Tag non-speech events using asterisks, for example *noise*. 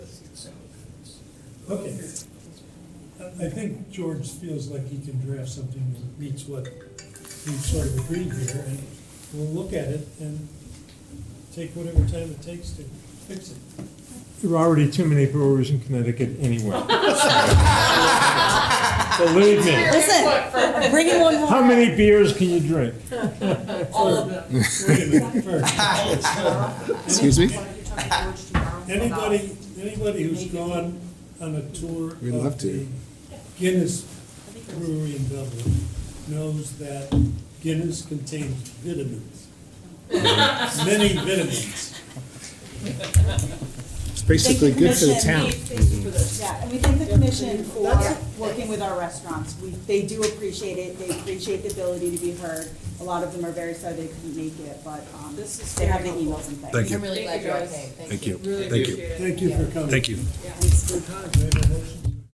Okay. I I think George feels like he can draft something that meets what we sort of agreed here, and we'll look at it and take whatever time it takes to fix it. There are already too many brewers in Connecticut anyway. Believe me, Listen, bring in one more. Um, how many beers can you drink? All of them. Wait a minute, first. *laughs* Excuse me? Anybody, anybody who's gone on a tour We'd love of to. the Guinness Brewery in Dublin knows that Guinness contains vitamins. Many vitamins. It's basically good for the Thank town. Thank you for this. Yeah, and we thank the commission for working with our restaurants. We, they do appreciate it, they appreciate the ability to be heard. A lot of them are very sorry they couldn't make it, but, um, This is they have the very emails and things. Thank you. I'm really glad you all came. Thank you. Really Thank you. appreciate it. Thank you for coming. Thank you. Thanks for your time. Do I have a motion?